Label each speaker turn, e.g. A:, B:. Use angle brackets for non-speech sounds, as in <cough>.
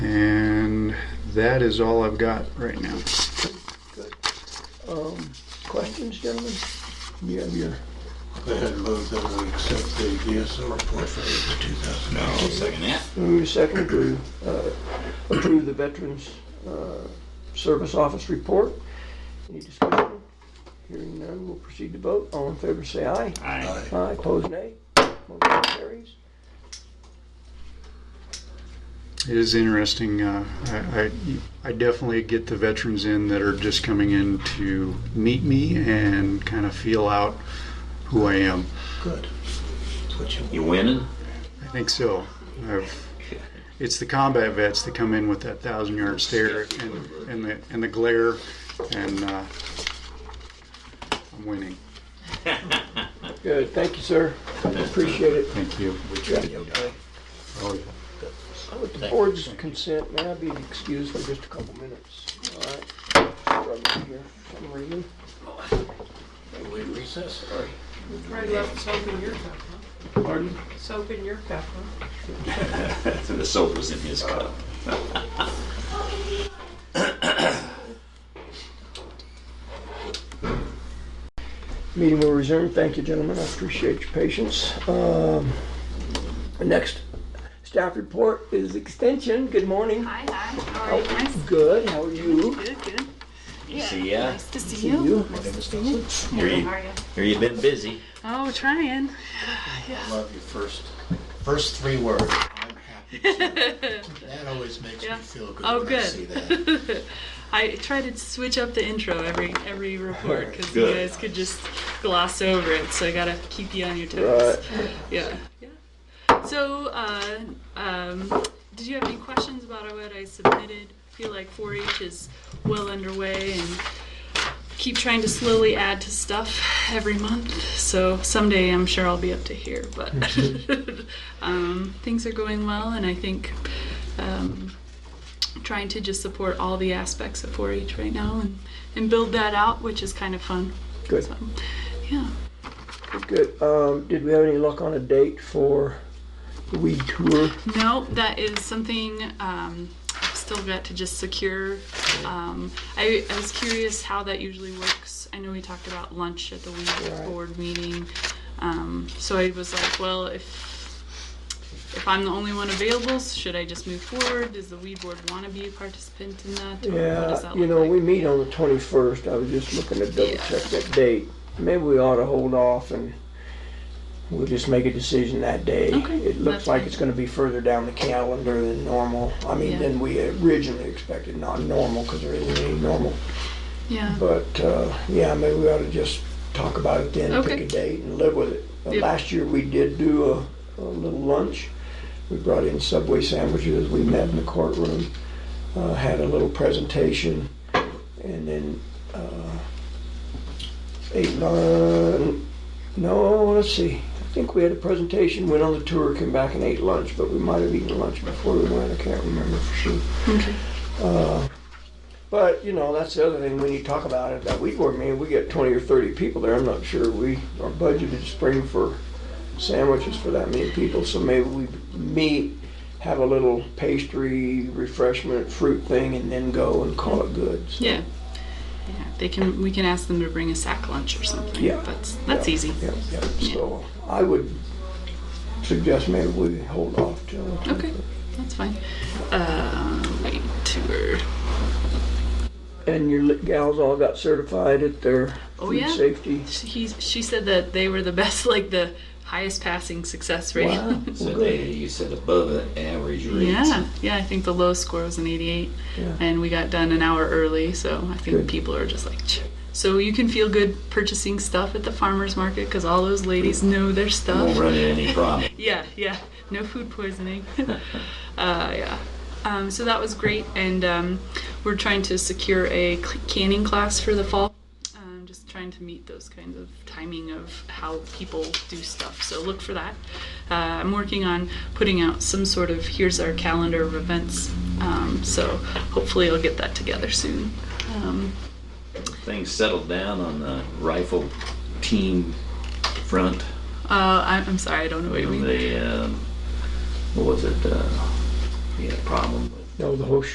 A: That is all I've got right now.
B: Um, questions, gentlemen? You have your,
C: They had moved that we accept the DSO report for the 2000. No, second that.
B: move second to, uh, approve the Veterans, uh, Service Office report. Any discussion? Hearing none, we'll proceed to vote. All in favor, say aye.
C: Aye.
B: Aye, pose nay. Motion carries.
A: It is interesting. Uh, I, I, I definitely get the veterans in that are just coming in to meet me and kind of feel out who I am.
C: Good. That's what you want.
D: You winning?
A: I think so. I've, it's the combat vets that come in with that thousand yard stare and, and the and the glare, and uh, I'm winning.
B: Good, thank you, sir. Appreciate it.
A: Thank you. Oh,
B: With the board's consent, may I be excused for just a couple minutes? All right. Struggling here for some reason.
C: We recess, sorry.
E: Right left soap in your cup,
B: Pardon?
E: huh? Soap in your cup, huh?
D: So the soap was in his cup.
B: Meeting will resume. Thank you, gentlemen. I appreciate your patience. Um, Next staff report is extension. Good morning.
F: Hi, hi. How are you guys?
B: Good, how are you?
F: Good, good.
D: You see, yeah,
F: Nice to
B: See
F: see you.
B: you?
F: Nice to see you.
D: here you,
F: How are you?
D: here you've been busy.
F: Oh, trying.
C: Love your first, first three words. I'm happy.
F: <laughs>
C: That always makes me
F: Yeah.
C: feel good
F: Oh,
C: when I
F: good.
C: see that.
F: I try to switch up the intro every every report because you
D: Good.
F: guys could just gloss over it. So I gotta keep you on your toes.
B: Right.
F: Yeah. Yeah. So, uh, um, did you have any questions about what I submitted? Feel like 4-H is well underway and keep trying to slowly add to stuff every month. So someday I'm sure I'll be up to here, but um, things are going well, and I think um, trying to just support all the aspects of 4-H right now and, and build that out, which is kind of fun.
B: Good.
F: So, yeah.
B: Good. Um, Did we have any luck on a date for the weed tour?
F: No, that is something um, I've still got to just secure. Um, I, I was curious how that usually works. I know we talked about lunch at the week
B: Right.
F: board meeting, um, so I was like, well, if if I'm the only one available, should I just move forward? Does the weed board want to be a participant in that? Or what does
B: Yeah,
F: that
B: you
F: look
B: know,
F: like?
B: we meet on the 21st. I was just looking to double
F: Yeah.
B: check that date. Maybe we ought to hold off and we'll just make a decision that day.
F: Okay,
B: It looks
F: that's
B: like
F: fine.
B: it's gonna be further down the calendar than normal. I mean,
F: Yeah.
B: than we originally expected, not normal, because there isn't any normal.
F: yeah.
B: But, uh, yeah, maybe we ought to just talk about it then, pick
F: Okay.
B: a date and live with it. Uh,
F: Yep.
B: Last year, we did do a, a little lunch. We brought in Subway sandwiches, we met in the courtroom, uh, had a little presentation, and then, uh, ate lunch, uh, no, let's see. I think we had a presentation, went on the tour, came back and ate lunch, but we might have eaten lunch before we went, I can't remember for sure. Uh,
F: Okay.
B: But, you know, that's the other thing, when you talk about it, that weed board meeting, we get twenty or thirty people there, I'm not sure we are budgeted spring for sandwiches for that many people, so maybe we meet, have a little pastry, refreshment, fruit thing, and then go and call it good. So,
F: Yeah. Yeah. They can. We can ask them to bring a sack lunch or something.
B: Yeah.
F: That's that's
B: yeah,
F: easy.
B: Yeah, yeah, so I would suggest maybe we hold off till.
F: Okay. That's fine. Uh, wait, tour.
B: And your li- gals all got certified at their
F: Oh,
B: food
F: yeah.
B: safety?
F: She, she said that they were the <laughs> best, like the highest passing success rate. <laughs>
B: Wow,
D: So
B: well,
D: they,
B: good.
D: you said above an average rate.
F: yeah, yeah. I think the low score was an 88,
B: Yeah.
F: and we got done an hour early. So I think
B: Good.
F: people are just like, "Ch-." so you can feel good purchasing stuff at the farmers market because all those ladies know their stuff.
D: Won't run into any problem.
F: Yeah, yeah. No food poisoning. uh, yeah. Um, so that was great, and um, we're trying to secure a cl- canning class for the fall. Um, just trying to meet those kinds of timing of how people do stuff. So look for that. Uh, I'm working on putting out some sort of here's our calendar of events. Um, so hopefully I'll get that together soon. Um,
D: <laughs> Things settled down on the rifle team front.
F: uh, I, I'm sorry, I don't know what you mean.
D: The, um, what was it? Uh, we uh, had a problem with
B: No, the whole